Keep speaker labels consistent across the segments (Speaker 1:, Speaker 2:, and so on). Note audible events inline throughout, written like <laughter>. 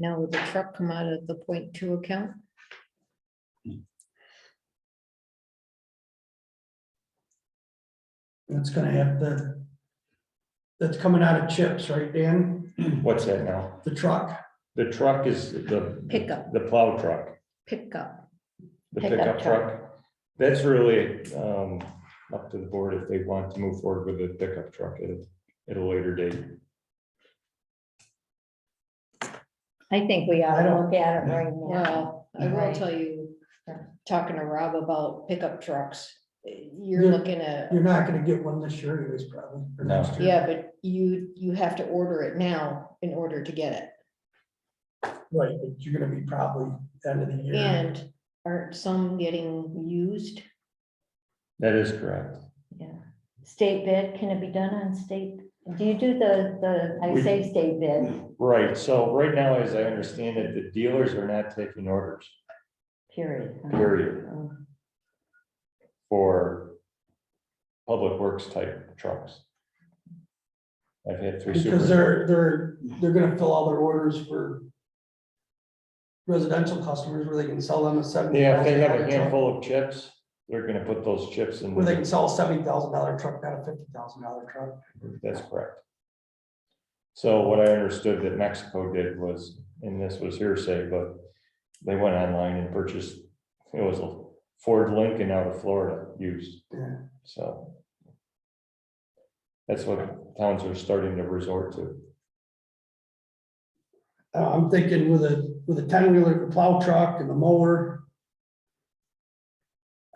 Speaker 1: Now would the truck come out of the point two account?
Speaker 2: That's gonna have the, that's coming out of chips, right, Dan?
Speaker 3: What's that now?
Speaker 2: The truck,
Speaker 3: The truck is the.
Speaker 1: Pickup.
Speaker 3: The plow truck,
Speaker 1: Pickup.
Speaker 3: the
Speaker 1: Pickup
Speaker 3: pickup
Speaker 1: truck.
Speaker 3: truck. That's really um up to the board if they want to move forward with the pickup truck at, a- at a later date.
Speaker 4: I think we ought
Speaker 2: I
Speaker 4: to
Speaker 2: don't-
Speaker 4: look at it right now.
Speaker 1: Well, I will
Speaker 4: Right.
Speaker 1: tell you, talking to Rob about pickup trucks, you're
Speaker 2: You're-
Speaker 1: looking at,
Speaker 2: you're not gonna get one this year anyways, probably. or
Speaker 3: No.
Speaker 2: next year.
Speaker 1: yeah, but you, you have to order it now in order to get it.
Speaker 2: Right, but you're gonna be probably end of the year.
Speaker 1: And aren't some getting used?
Speaker 3: That is correct.
Speaker 4: Yeah. State bid, can it be done on state? Do you do the, the, I
Speaker 3: We-
Speaker 4: say state bid,
Speaker 3: Right, so right now, as I understand it, the dealers are not taking orders,
Speaker 4: period. huh?
Speaker 3: Period.
Speaker 4: Oh,
Speaker 3: for public works type trucks. I've had three. super-
Speaker 2: Because they're, they're, they're gonna fill all their orders for residential customers where they can sell them a seventy.
Speaker 3: Yeah, if they have a handful of chips, they're gonna put those chips in.
Speaker 2: Where they can sell a seventy thousand dollar truck, not a fifty thousand dollar truck.
Speaker 3: That's correct. So what I understood that Mexico did was, and this was hearsay, but they went online and purchased, it was a Ford Lincoln out of Florida used,
Speaker 2: Yeah.
Speaker 3: so. That's what towns are starting to resort to.
Speaker 2: Uh, I'm thinking with a, with a ten wheeler, the plow truck and the mower.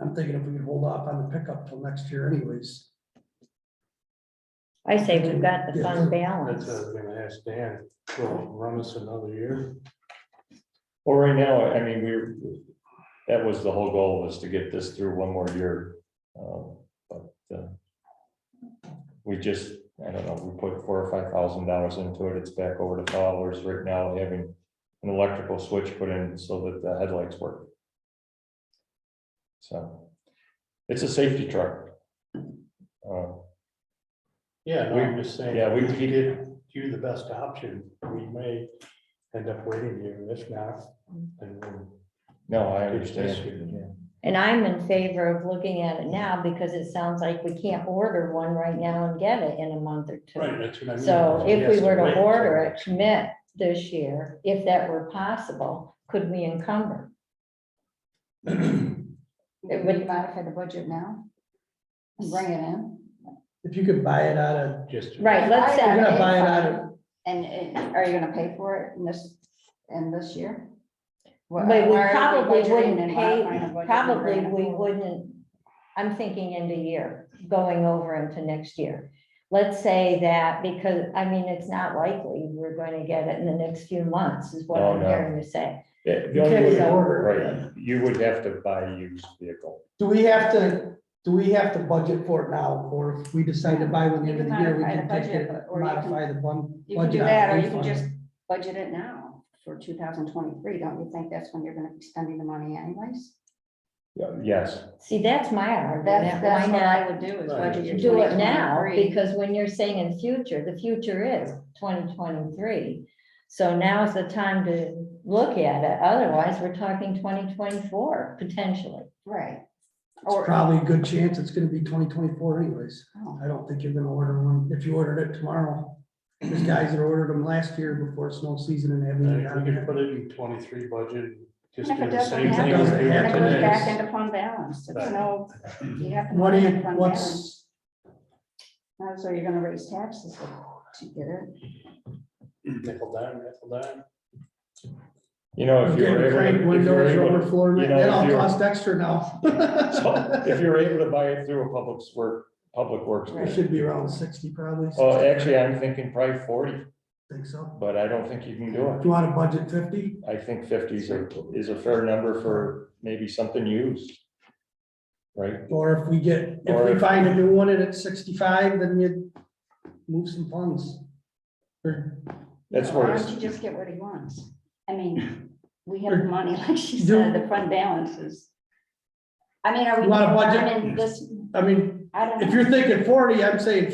Speaker 2: I'm thinking if we could hold off on the pickup till next year anyways.
Speaker 4: I say we've got the fund
Speaker 5: That's
Speaker 4: balance.
Speaker 5: what I was gonna ask Dan, will it run us another year?
Speaker 3: Well, right now, I mean, we, that was the whole goal was to get this through one more year. um, But uh, we just, I don't know, we put four or five thousand dollars into it. It's back over to dollars right now, having an electrical switch put in so that the headlights work. So it's a safety truck. Uh,
Speaker 5: Yeah, no, I'm just saying.
Speaker 3: Yeah, we-
Speaker 5: If we get you the best option, we may end up waiting here, if not, then we'll.
Speaker 3: No, I
Speaker 5: do this
Speaker 3: understand.
Speaker 5: year.
Speaker 4: And I'm in favor of looking at it now because it sounds like we can't order one right now and get it in a month or two.
Speaker 5: Right, that's what I mean.
Speaker 4: So if we
Speaker 5: has
Speaker 4: were
Speaker 5: wait
Speaker 4: to
Speaker 5: till
Speaker 4: order it,
Speaker 5: next-
Speaker 4: commit this year, if that were possible, could we encumber?
Speaker 6: Would we modify the budget now? And bring it in?
Speaker 2: If you could buy it out of,
Speaker 5: Just.
Speaker 4: Right, let's
Speaker 2: You're gonna
Speaker 4: say,
Speaker 2: buy it out of-
Speaker 6: And, and are you gonna pay for it in this, in this year? Wha-
Speaker 4: but we
Speaker 6: or are
Speaker 4: probably
Speaker 6: budgeting
Speaker 4: wouldn't
Speaker 6: and
Speaker 4: pay,
Speaker 6: modifying the budget and
Speaker 4: probably
Speaker 6: bringing it
Speaker 4: we
Speaker 6: forward?
Speaker 4: wouldn't, I'm thinking into year, going over into next year. Let's say that, because, I mean, it's not likely we're going to get it in the next few months, is what
Speaker 3: No,
Speaker 4: I'm
Speaker 3: no.
Speaker 4: hearing you say.
Speaker 3: Yeah, the
Speaker 2: you
Speaker 3: only
Speaker 2: can't
Speaker 3: way-
Speaker 2: even order. it.
Speaker 3: Right, you would have to buy a used vehicle.
Speaker 2: Do we have to, do we have to budget for it now, or if we decide to buy one the end of the year, we
Speaker 6: You can
Speaker 2: can take
Speaker 6: modify the
Speaker 2: it,
Speaker 6: budget, or you can-
Speaker 2: modify the one.
Speaker 6: You can do
Speaker 2: budget on
Speaker 6: that, or
Speaker 2: one
Speaker 6: you can
Speaker 2: fund.
Speaker 6: just budget it now for two thousand twenty-three. Don't you think that's when you're gonna be spending the money anyways?
Speaker 3: Yeah, Yes,
Speaker 4: See, that's my argument,
Speaker 6: That's, that's
Speaker 4: why
Speaker 6: what
Speaker 4: not
Speaker 6: I would do is
Speaker 5: Right.
Speaker 6: budget your
Speaker 4: do it now,
Speaker 6: 2023.
Speaker 4: because when you're saying in future, the future is twenty twenty-three. So now is the time to look at it, otherwise we're talking twenty twenty-four potentially.
Speaker 6: Right.
Speaker 2: It's
Speaker 6: Or-
Speaker 2: probably a good chance it's gonna be twenty twenty-four anyways.
Speaker 6: Oh.
Speaker 2: I don't think you're gonna order one, if you ordered it tomorrow. There's guys that ordered them last year before snow season and
Speaker 5: And
Speaker 2: haven't.
Speaker 5: If we
Speaker 2: gotten
Speaker 5: could
Speaker 2: it.
Speaker 5: put it in twenty-three budget, just
Speaker 6: If
Speaker 5: do
Speaker 6: it
Speaker 5: the
Speaker 6: doesn't
Speaker 5: same thing.
Speaker 2: happen,
Speaker 5: we do
Speaker 2: then
Speaker 6: It
Speaker 2: it
Speaker 6: goes
Speaker 2: is.
Speaker 6: back
Speaker 5: today.
Speaker 6: into fund balance. It's
Speaker 5: Right.
Speaker 6: no, you have to.
Speaker 2: What do
Speaker 6: put it
Speaker 2: you,
Speaker 6: in fund balance.
Speaker 2: what's,
Speaker 6: Uh, So you're gonna raise taxes to get it.
Speaker 5: Nickel dime, nickel dime.
Speaker 3: you know, if you
Speaker 2: getting
Speaker 3: were able.
Speaker 2: cranked
Speaker 3: to- if you were
Speaker 2: windows,
Speaker 3: able to-
Speaker 2: rubber floor,
Speaker 3: you know,
Speaker 2: that
Speaker 3: if
Speaker 2: all
Speaker 3: you were-
Speaker 2: costs extra now.
Speaker 3: So <laughs> if you're able to buy it through a public work, public works.
Speaker 2: <laughs> It should be around sixty probably.
Speaker 3: Well, Oh, actually, I'm thinking probably forty,
Speaker 2: Think so.
Speaker 3: but I don't think you can do
Speaker 2: Do
Speaker 3: it.
Speaker 2: you want a budget fifty?
Speaker 3: I think fifty is a, is a fair number for maybe something used. Right?
Speaker 2: Or if we get,
Speaker 3: Or
Speaker 2: if we
Speaker 3: if-
Speaker 2: find a new one and it's sixty-five, then you move some funds. Or
Speaker 3: That's
Speaker 6: Why
Speaker 3: where it's-
Speaker 6: don't you just get what he wants? I mean, we have the money, <laughs> like she
Speaker 2: Do-
Speaker 6: said, the fund balances. I mean, are we
Speaker 2: You want a budget?
Speaker 6: burning this,
Speaker 2: I mean,
Speaker 6: I don't know.
Speaker 2: if you're thinking forty, I'm saying